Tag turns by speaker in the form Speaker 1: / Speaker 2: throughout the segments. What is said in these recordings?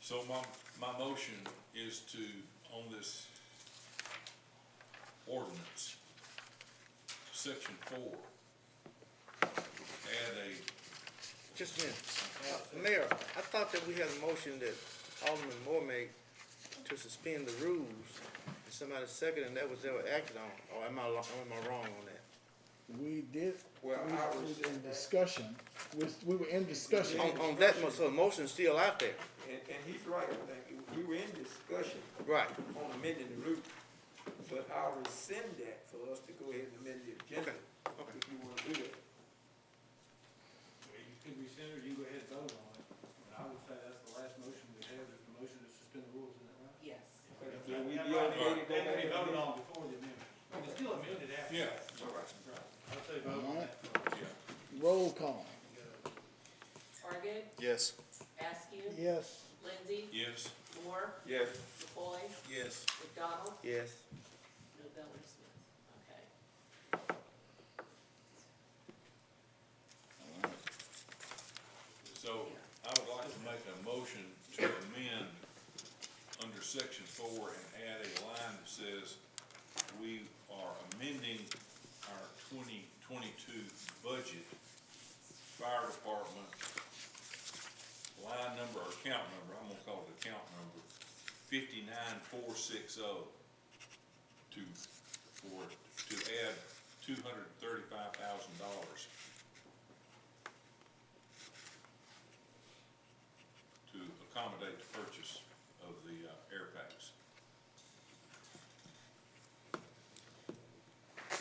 Speaker 1: So my, my motion is to, on this ordinance, section four, add a,
Speaker 2: Just a minute. Uh, Mayor, I thought that we had a motion that Alderman Moore made to suspend the rules. And somebody seconded, and that was ever acted on. Or am I, lo- am I wrong on that?
Speaker 3: We did, we
Speaker 4: Well, I
Speaker 3: was
Speaker 4: was-
Speaker 3: in discussion, we, we were in discussion.
Speaker 2: On, on that, mo- so the motion's still out there.
Speaker 4: And, and he's right, like, we were in discussion
Speaker 2: Right.
Speaker 4: on amending the route, but I'll rescind that for us to go ahead and amend the agenda,
Speaker 2: okay.
Speaker 4: if you wanna do that.
Speaker 5: You could rescind or you go ahead and vote on it. And I would say that's the last motion we have, is the motion to suspend the rules, isn't that right?
Speaker 6: Yes.
Speaker 4: But
Speaker 5: That
Speaker 4: Will we
Speaker 5: might
Speaker 4: be okay to
Speaker 5: be-
Speaker 4: go back?
Speaker 5: that can be voted
Speaker 4: and-
Speaker 5: on before the amendment. It's still amended after.
Speaker 1: yeah,
Speaker 5: Right. I would say vote on that.
Speaker 1: yeah.
Speaker 3: Roll call.
Speaker 6: Argid,
Speaker 7: Yes.
Speaker 6: Askew,
Speaker 3: Yes.
Speaker 6: Lindsey,
Speaker 1: Yes?
Speaker 6: Moore,
Speaker 4: Yes,
Speaker 6: McCoy,
Speaker 1: Yes.
Speaker 6: McDonald,
Speaker 2: Yes.
Speaker 6: Noveller Smith. Okay.
Speaker 1: So I would like to make a motion to amend under section four and add a line that says we are amending our twenty twenty-two budget, fire department, line number or account number, I'm gonna call it account number, fifty-nine four six oh to, for, to add two hundred thirty-five thousand dollars to accommodate the purchase of the uh, air packs.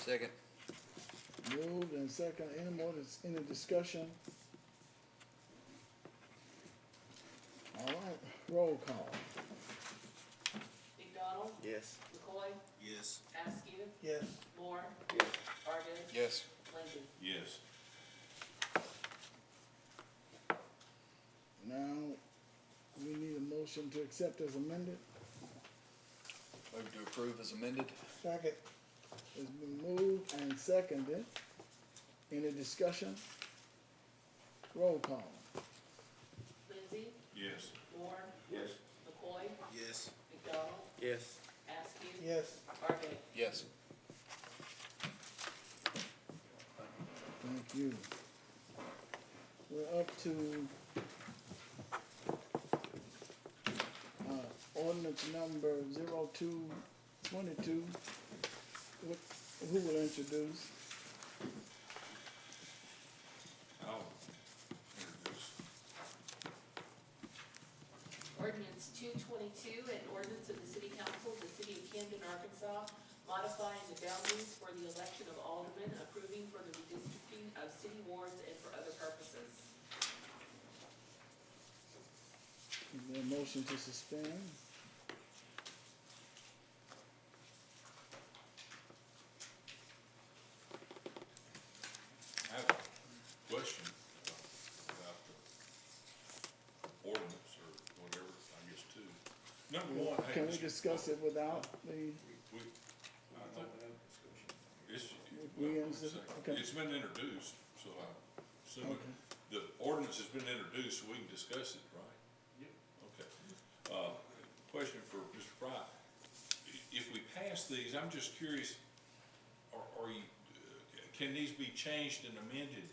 Speaker 7: Second.
Speaker 3: Moved and second, any more, dis- any discussion? All right, roll call.
Speaker 6: McDonald,
Speaker 2: Yes.
Speaker 6: McCoy,
Speaker 7: Yes.
Speaker 6: Askew,
Speaker 3: Yes.
Speaker 6: Moore,
Speaker 4: yes,
Speaker 6: Argid,
Speaker 7: Yes.
Speaker 6: Lindsey.
Speaker 1: Yes,
Speaker 3: Now, we need a motion to accept as amended.
Speaker 7: Move to approve as amended.
Speaker 3: Second. It's been moved and seconded. Any discussion? Roll call.
Speaker 6: Lindsey,
Speaker 1: yes,
Speaker 6: Moore,
Speaker 4: yes,
Speaker 6: McCoy,
Speaker 7: Yes.
Speaker 6: McDonald,
Speaker 2: Yes.
Speaker 6: Askew,
Speaker 3: Yes.
Speaker 6: Argid.
Speaker 7: Yes.
Speaker 3: Thank you. We're up to uh, ordinance number zero two twenty-two. What, who will introduce?
Speaker 1: I'll introduce.
Speaker 6: Ordinance two twenty-two, an ordinance of the city council of the city of Camden, Arkansas, modifying the boundaries for the election of aldermen, approving for the redistricting of city wards and for other purposes.
Speaker 3: Is there a motion to suspend?
Speaker 1: I have a question uh, about the ordinance or whatever, I guess, too. Number one, hey,
Speaker 3: Can we
Speaker 1: Mr.
Speaker 3: discuss it without the,
Speaker 1: We, I think it's,
Speaker 3: We- we
Speaker 1: well,
Speaker 3: answer-
Speaker 1: second.
Speaker 3: okay.
Speaker 1: it's been introduced, so I, so the ordinance has been introduced, so we can discuss it, right? Okay. Uh, question for Mr. Fry. I- If we pass these, I'm just curious, are, are you, uh, can these be changed and amended